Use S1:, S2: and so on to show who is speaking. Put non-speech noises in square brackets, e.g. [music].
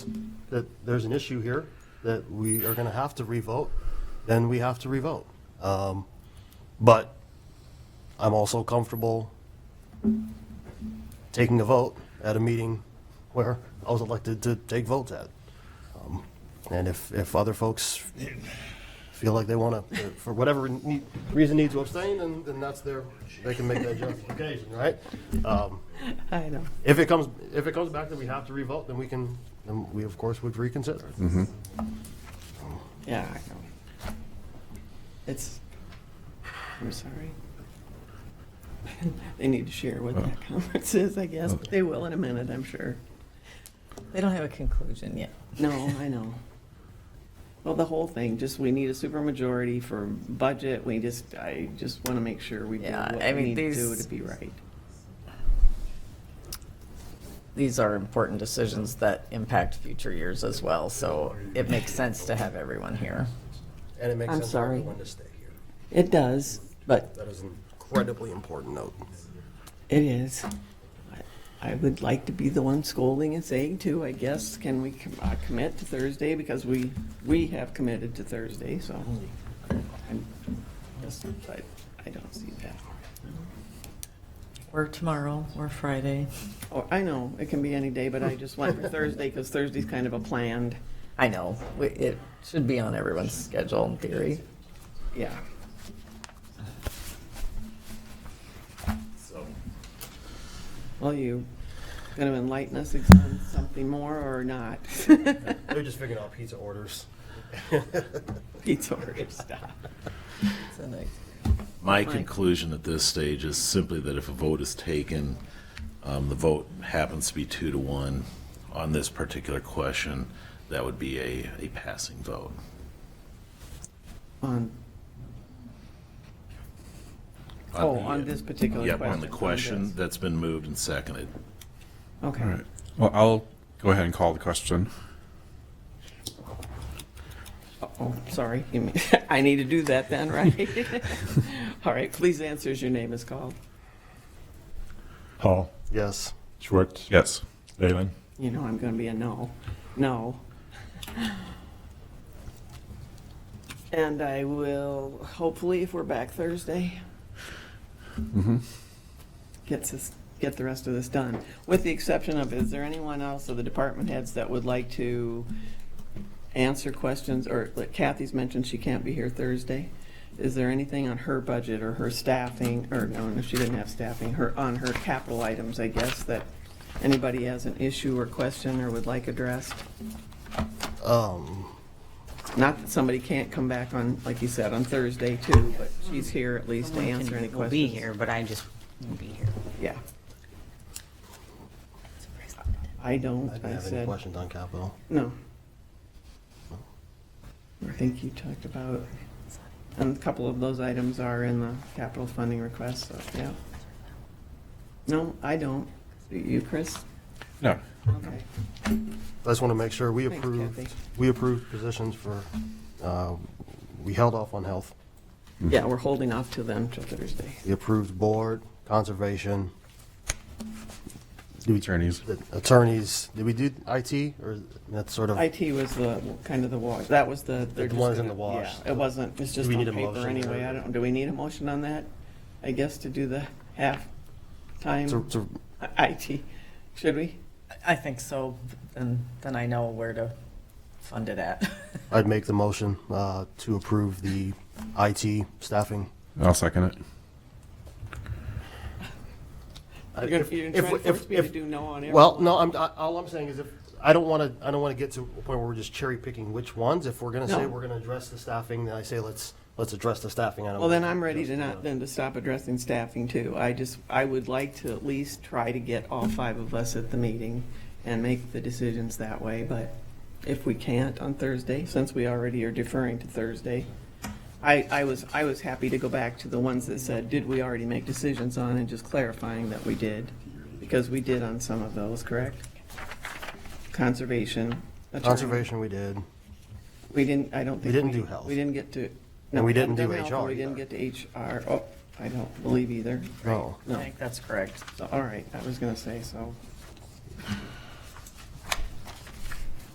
S1: that there's an issue here that we are going to have to revote, then we have to revote. Um, But I'm also comfortable taking a vote at a meeting where I was elected to take votes at. Um, And if, if other folks feel like they want to, for whatever need- reason need to abstain, then, then that's their, they can make that justification, right? Um,
S2: I know.
S1: If it comes, if it comes back that we have to revote, then we can, then we of course would reconsider.
S2: Yeah, I know. It's, I'm sorry. [laughs] They need to share what that conference is, I guess, but they will in a minute, I'm sure.
S3: They don't have a conclusion yet.
S2: [laughs] No, I know. Well, the whole thing, just we need a supermajority for budget, we just, I just want to make sure we do
S3: Yeah,
S2: what
S3: I
S2: we
S3: mean,
S2: need to do
S3: these-
S2: to be right.
S3: These are important decisions that impact future years as well, so it makes sense to have everyone here.
S1: And it makes
S2: I'm
S1: sense for
S2: sorry.
S1: everyone to stay here.
S2: It does, but
S1: That is an incredibly important note.
S2: it is. I- I would like to be the one scolding and saying too, I guess, can we com- uh, commit to Thursday? Because we, we have committed to Thursday, so. I'm just- I I don't see that.
S3: Or tomorrow, or Friday.
S2: Oh, I know, it can be any day, but I just went for Thursday because Thursday's kind of a planned,
S3: I know, we- it should be on everyone's schedule in theory.
S2: yeah. Well, you going to enlighten us on something more or not? [laughs]
S1: They're just figuring out pizza orders.
S2: Pizza order stuff.
S3: So, like,
S4: My conclusion at this stage is simply that if a vote is taken, um, the vote happens to be two to one on this particular question, that would be a, a passing vote.
S2: On, oh, on this particular question.
S4: Yep, on the question that's been moved and seconded.
S2: this. Okay.
S5: All right. Well, I'll go ahead and call the question.
S2: Oh, sorry. You mean- [laughs] I need to do that then, right? [laughs] All right, please answer as your name is called.
S6: Hall,
S1: Yes.
S6: Schwartz,
S5: Yes.
S6: Leyland.
S2: You know I'm going to be a no. No. And I will, hopefully, if we're back Thursday,
S4: Mm-hmm.
S2: get this, get the rest of this done. With the exception of, is there anyone else of the department heads that would like to answer questions? Or like Kathy's mentioned she can't be here Thursday. Is there anything on her budget or her staffing, or no, no, she didn't have staffing, her, on her capital items, I guess, that anybody has an issue or question or would like addressed?
S1: Um,
S2: Not that somebody can't come back on, like you said, on Thursday too, but she's here at least to answer any
S7: We'll
S2: questions.
S7: be here, but I just won't be here.
S2: Yeah. I don't,
S1: I didn't
S2: I
S1: have any
S2: said,
S1: questions on capital.
S2: no. I think you talked about, and a couple of those items are in the capital funding request, so, yeah. No, I don't. You, Chris?
S5: No.
S2: Okay.
S1: I just want to make sure we
S2: Thanks,
S1: approved,
S2: Kathy.
S1: we approved positions for, uh, we held off on health.
S2: Yeah, we're holding off till then, till Thursday.
S1: We approved board, conservation,
S5: Attorneys.
S1: the attorneys. Did we do IT or that's sort of?
S2: IT was the, kind of the wash, that was the. they're
S1: The
S2: just
S1: one's in
S2: gonna-
S1: the wash.
S2: Yeah, it wasn't, it's just
S1: we
S2: on
S1: need a
S2: paper
S1: motion
S2: anyway,
S1: or-
S2: I don't, do we need a motion on that? I guess to do the
S1: To,
S2: half-time
S1: to,
S2: IT, should we?
S3: I think so, and then I know where to fund it at.
S1: I'd make the motion, uh, to approve the IT staffing.
S5: I'll second it.
S2: You're gonna, you're
S1: If-
S2: trying to
S1: if-
S2: force me to
S1: if-
S2: do no on every.
S1: Well, no, I'm, I- all I'm saying is if, I don't want to, I don't want to get to a point where we're just cherry picking which ones. If we're going to say
S2: No.
S1: we're going to address the staffing, then I say let's, let's address the staffing. I don't
S2: Well, then
S1: wanna
S2: I'm ready to
S1: address
S2: not,
S1: the- uh,
S2: then to stop addressing staffing too. I just, I would like to at least try to get all five of us at the meeting and make the decisions that way, but if we can't on Thursday, since we already are deferring to Thursday, I, I was, I was happy to go back to the ones that said, did we already make decisions on, and just clarifying that we did, because we did on some of those, correct? Conservation. attorney.
S1: Conservation, we did.
S2: We didn't, I don't think.
S1: We didn't do health.
S2: We didn't get to.
S1: And we
S2: no,
S1: didn't do
S2: haven't done health,
S1: HR
S2: and We didn't get to HR. Oh, I don't believe either.
S3: [laughs]
S1: No.
S3: I think that's correct.
S2: So, all right, I was gonna say, so.